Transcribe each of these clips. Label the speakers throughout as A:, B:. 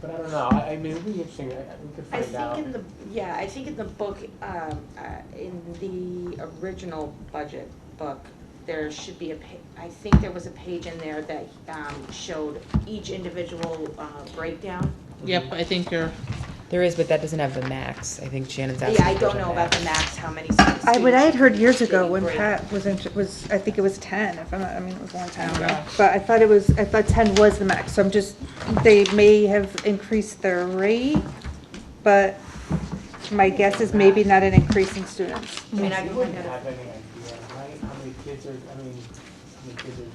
A: But I don't know, I, I mean, it'd be interesting, I, I- we could
B: I
A: find out.
B: think in the, yeah, I think in the book, um, uh, in the original budget book, there should be a pa- I think there was a page in there that, um, showed each individual, uh, breakdown.
C: Yep, I think you're,
D: There is, but that doesn't have the max. I think Shannon's asking.
B: Yeah, I
D: for
B: don't know about the max, how many students.
E: I, what I had heard years ago when
B: Great.
E: Pat was, in- was, I think it was ten, if I'm not, I mean, it was a long time ago. But I thought it was, I thought ten was the max, so I'm just, they may have increased their rate, but my guess is maybe not an increase in students.
B: I mean, I can
A: You
B: find
A: wouldn't
B: out.
A: have any idea, right, how many kids are, I mean, how many kids are,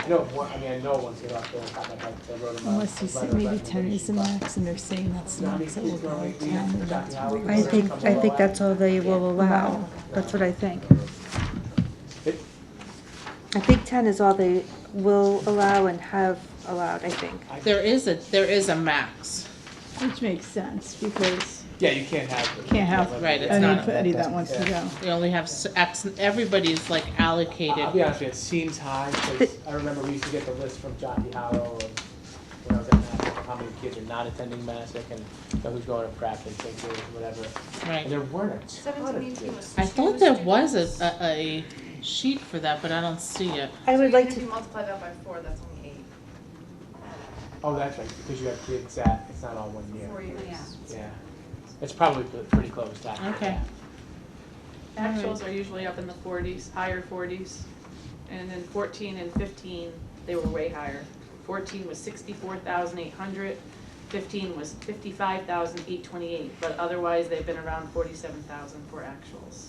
A: I know, one- I mean, I know once they got there, kind of like, they wrote them a-
F: Unless you
A: a
F: say
A: letter of
F: maybe ten is the
A: recommendation, but-
F: max, and they're saying that's the
A: How many
F: max, it will
A: kids
F: go
A: normally
F: to
A: do
F: ten, and
A: Dr.
F: that's
A: Howard
E: I
A: was
E: think,
A: comfortable
E: I think
A: at?
E: that's all they will allow, that's what I think.
A: It-
E: I think ten is all they will allow and have allowed, I think.
C: there is a, there is a max.
F: which makes sense, because
A: Yeah, you can't have.
F: Can't have-
C: Right, it's not-
F: anybody that wants to go.
C: They only have s- X, everybody's like
A: I'll be
C: allocated.
A: honest with you, it seems high, because I remember we used to get the list from Jockey Hollow and when I was at Massac, how many kids are not attending Massac and who's going to Pratt and St. Louis, whatever. And
C: Right.
A: there weren't a ton of kids.
C: I thought there was a, a, a sheet for that, but I don't see it.
E: I would like
G: If you
E: to,
G: multiply that by four, that's only eight,
A: Oh, that's right, because you have kids that, it's not all one year.
G: four years.
A: Yeah. It's probably p- pretty close to accurate.
C: Okay.
H: Actuals are usually up in the forties, higher forties, and then fourteen and fifteen, they were way higher. Fourteen was sixty-four thousand eight hundred, fifteen was fifty-five thousand eight twenty-eight, but otherwise, they've been around forty-seven thousand for actuals,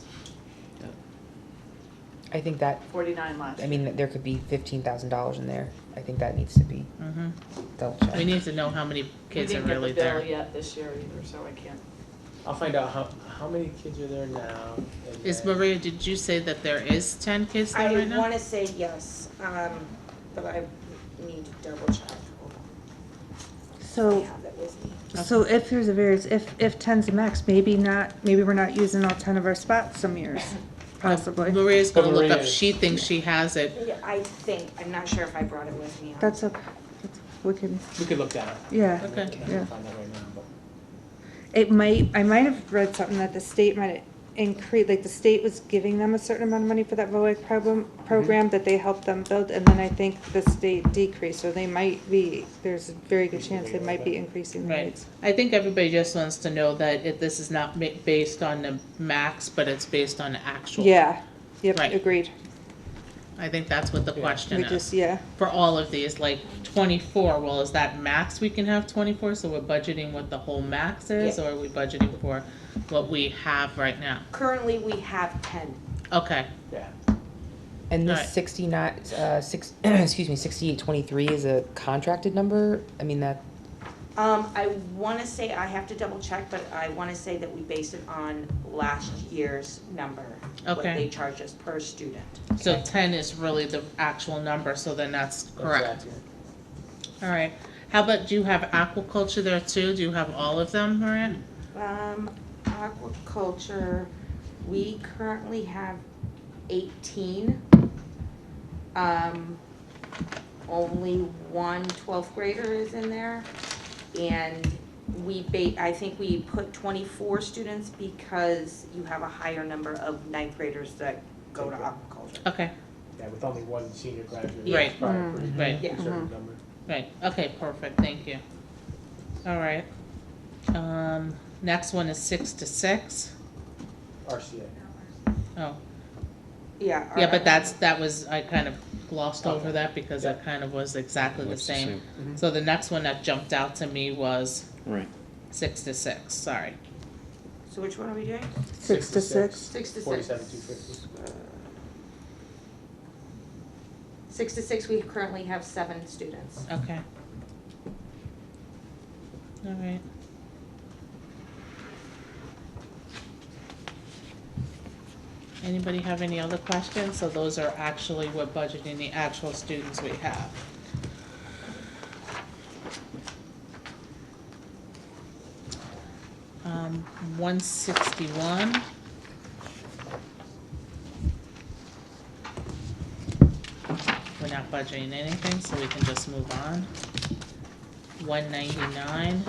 D: I think that,
H: forty-nine last.
D: I mean, there could be fifteen thousand dollars in there. I think that needs to be
C: Mhm.
D: double
C: We
D: checked.
C: need to know how many kids are really
H: We
C: there.
H: didn't get the bill yet this year either, so I can't.
A: I'll find out how, how many kids are there now. and
C: Is
A: then-
C: Maria, did you say that there is ten kids there
B: I
C: right now?
B: wanna say yes, um, but I need to double check. Hold on.
E: so.
B: Yeah, that was me.
E: So if there's a variance, if, if ten's the max, maybe not, maybe we're not using all ten of our spots some years, possibly.
C: Maria's gonna look up,
A: Maria-
C: she thinks she has it.
B: Yeah, I think, I'm not sure if I brought it with me.
E: That's okay, That's- we can,
A: We could look that up.
E: yeah.
C: Okay.
A: I
E: Yeah.
A: can find that right now, but.
E: It might, I might have read something that the state might increase, like the state was giving them a certain amount of money for that VOAG problem, program that they helped them build, and then I think the state decreased, so they might be, there's a very good chance they might be increasing the
C: Right.
E: rates.
C: I think everybody just wants to know that it, this is not ma- based on the max, but it's based on the actual.
E: Yeah, yep,
C: Right.
E: agreed.
C: I think that's what the
A: Yeah.
E: We
C: question
E: just,
C: is,
E: yeah,
C: for all of these, like twenty-four, well, is that max we can have twenty-four, so we're budgeting what the whole max is, or are we budgeting for what we have right now?
B: Currently, we have ten.
C: Okay,
D: And
C: Right.
D: this sixty-nine, uh, six, excuse me, sixty-eight twenty-three is a contracted number? I mean, that,
B: Um, I wanna say, I have to double check, but I wanna say that we based it on last year's number. What
C: Okay.
B: they charge us per student.
C: so ten is really the actual number, so then that's correct,
A: Exactly.
C: alright. How about, do you have aquaculture there too, do you have all of them, Maria?
B: Um, aquaculture, we currently have eighteen. Um, only one twelfth grader is in there. And we ba- I think we put twenty-four students because you have a higher number of ninth graders that go to aquaculture.
C: Okay,
A: Yeah, with only one senior graduate.
C: Right. Mm-hmm.
A: it's probably a pretty-
C: right.
B: Yeah.
A: Certain number.
C: Right, okay, perfect, thank you. All right. Um, next one is six to six.
A: RCA.
C: Oh,
B: Yeah.
C: yeah,
B: alright.
C: but that's, that was, I kind of glossed over
A: Okay.
C: that because that kind of was exactly the
I: Looks the
C: same.
B: Mm-hmm.
A: Mhm.
C: So the next one that jumped out to me was
I: Right.
C: six to six, sorry.
B: So which one are we doing? Uh,
E: six to six.
H: Six to six.
A: Forty-seven, two fifty.
B: Six to six, we currently have seven students.
C: Okay. All right. Anybody have any other questions? So those are actually, we're budgeting the actual students we have. Um, one sixty-one. We're not budgeting anything, so we can just move on. one ninety-nine.